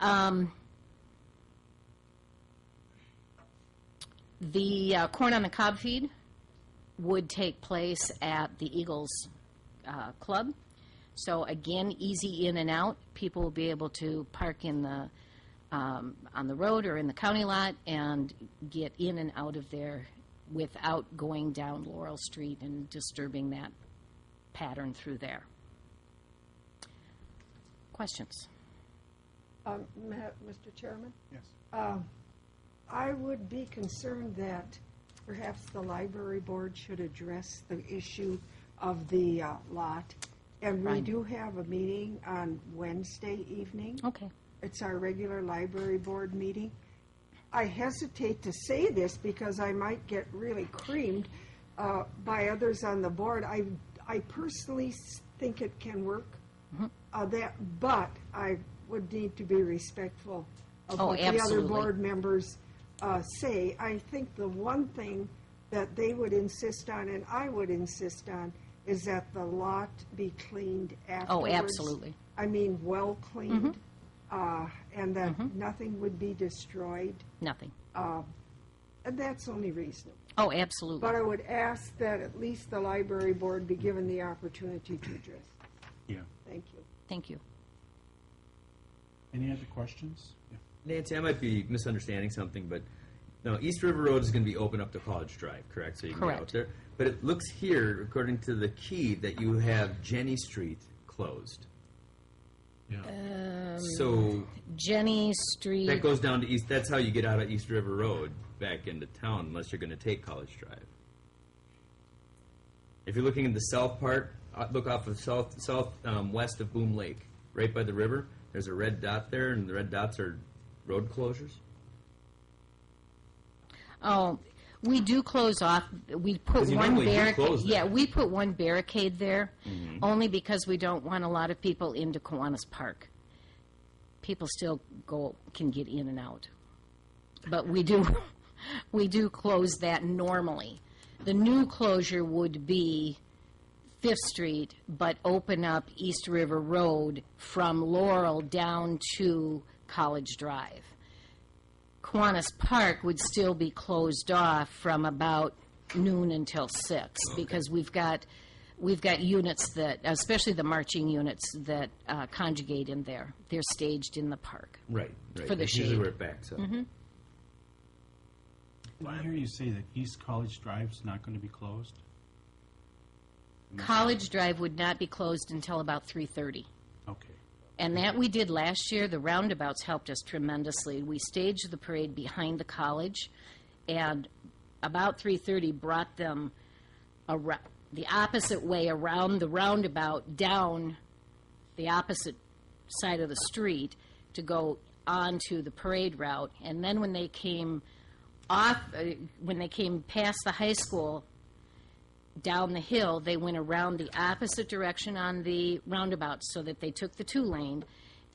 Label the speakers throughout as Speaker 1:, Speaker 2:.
Speaker 1: Um, The uh, Corn on the Cob feed would take place at the Eagles uh, Club. So again, easy in and out. People will be able to park in the, um, on the road or in the county lot and get in and out of there without going down Laurel Street and disturbing that pattern through there. Questions?
Speaker 2: Um, Ma- Mr. Chairman,
Speaker 3: Yes.
Speaker 2: I would be concerned that perhaps the library board should address the issue of the uh, lot. And we
Speaker 1: Right.
Speaker 2: do have a meeting on Wednesday evening.
Speaker 1: Okay.
Speaker 2: It's our regular library board meeting. I hesitate to say this because I might get really creamed uh, by others on the board. I, I personally s- think it can work,
Speaker 1: Mm-hmm.
Speaker 2: uh, that, but I would need to be respectful of
Speaker 1: Oh,
Speaker 2: what the other
Speaker 1: absolutely.
Speaker 2: board members uh, say. I think the one thing that they would insist on, and I would insist on, is that the lot be cleaned afterwards.
Speaker 1: absolutely.
Speaker 2: I mean, well cleaned, uh, and that nothing would be destroyed.
Speaker 1: Nothing.
Speaker 2: And that's only reasonable.
Speaker 1: Oh, absolutely.
Speaker 2: But I would ask that at least the library board be given the opportunity to address. it.
Speaker 3: Yeah.
Speaker 2: Thank you.
Speaker 1: Thank you.
Speaker 3: Any other questions? Yeah.
Speaker 4: Nancy, I might be misunderstanding something, but no, East River Road is going to be open up to College Drive, correct? So you can get
Speaker 1: Correct.
Speaker 4: out there. But it looks here, according to the key, that you have Jenny Street closed.
Speaker 1: Uh,
Speaker 4: Yeah. so
Speaker 1: Jenny
Speaker 4: that
Speaker 1: Street,
Speaker 4: goes down to East. That's how you get out of East River Road back into town, unless you're going to take College Drive. If you're looking in the south part, uh, look off of south south um, west of Boom Lake, right by the river. There's a red dot there, and the red dots are road closures.
Speaker 1: oh, we do close off, we put
Speaker 4: 'Cause you
Speaker 1: one
Speaker 4: normally do
Speaker 1: barricade.
Speaker 4: close Mm-hmm. that.
Speaker 1: Yeah, we put one barricade there, only because we don't want a lot of people into Kiwanis Park. People still go, can get in and out. But we do, we do close that normally. The new closure would be Fifth Street, but open up East River Road from Laurel down to College Drive. Kiwanis Park would still be closed off from about noon until six, because we've got, we've got units that, especially the marching units that uh, conjugate in there. They're staged in the park.
Speaker 4: Right, right.
Speaker 1: For the
Speaker 4: That's
Speaker 1: shade.
Speaker 4: usually
Speaker 1: Mm-hmm.
Speaker 4: where it backs up.
Speaker 3: Did I hear you say that East College Drive's not going to be closed?
Speaker 1: College Drive would not be closed until about three-thirty.
Speaker 3: Okay.
Speaker 1: And that we did last year. The roundabouts helped us tremendously. We staged the parade behind the college, and about 3:30 brought them arou- the opposite way around the roundabout down the opposite side of the street to go onto the parade route. And then when they came off, uh, when they came past the high school, down the hill, they went around the opposite direction on the roundabout so that they took the two lane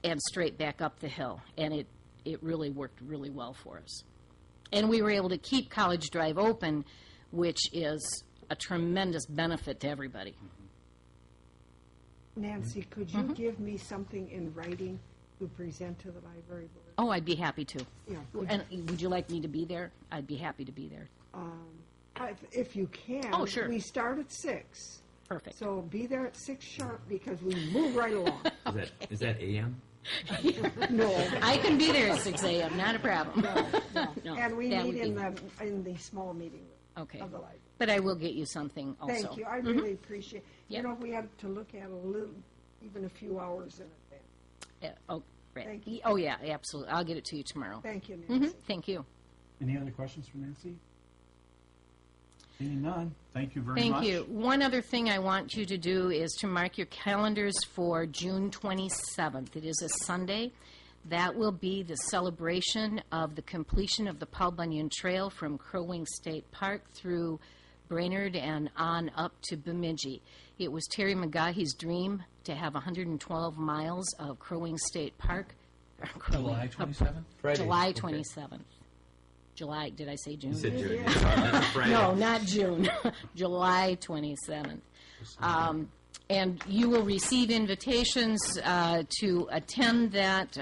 Speaker 1: and straight back up the hill. And it, it really worked really well for us. And we were able to keep College Drive open, which is a tremendous benefit to everybody.
Speaker 2: Nancy, could you give me something in writing to present to the library board?
Speaker 1: Oh, I'd be happy to.
Speaker 2: Yeah.
Speaker 1: And would you like me to be there? I'd be happy to be there.
Speaker 2: I- If you can.
Speaker 1: Oh, sure.
Speaker 2: We start at six.
Speaker 1: Perfect.
Speaker 2: So be there at six sharp because we move right along.
Speaker 4: Is that is that AM?
Speaker 2: No.
Speaker 1: I can be there at 6 a.m., not a problem. No,
Speaker 2: And we
Speaker 1: that
Speaker 2: meet
Speaker 1: would
Speaker 2: in
Speaker 1: be-
Speaker 2: the, in the small meeting room.
Speaker 1: Okay.
Speaker 2: Of the library.
Speaker 1: But I will get you something also. Mm-hmm.
Speaker 2: Thank you, I really appreciate, you
Speaker 1: Yep.
Speaker 2: know, we had to look at a little, even a few hours in advance.
Speaker 1: Yeah, Oh, right.
Speaker 2: Thank you.
Speaker 1: Oh, yeah, absolutely. I'll get it to you tomorrow.
Speaker 2: Thank you,
Speaker 1: Mhm,
Speaker 2: Nancy.
Speaker 1: Thank you.
Speaker 3: Any other questions for Nancy? Seeing none, thank you very much.
Speaker 1: Thank you. One other thing I want you to do is to mark your calendars for June 27th. It is a Sunday. That will be the celebration of the completion of the Paul Bunyan Trail from Crow Wing State Park through Brainerd and on up to Bemidji. It was Terry McGahee's dream to have 112 miles of Crow Wing State Park. Crow Wing-
Speaker 5: July 27th?
Speaker 4: Friday.
Speaker 1: July
Speaker 4: Okay.
Speaker 1: 27th. July, did I say June?
Speaker 4: You said June. Sorry, Friday.
Speaker 1: No, not June, July 27th. Um, And you will receive invitations uh, to attend that.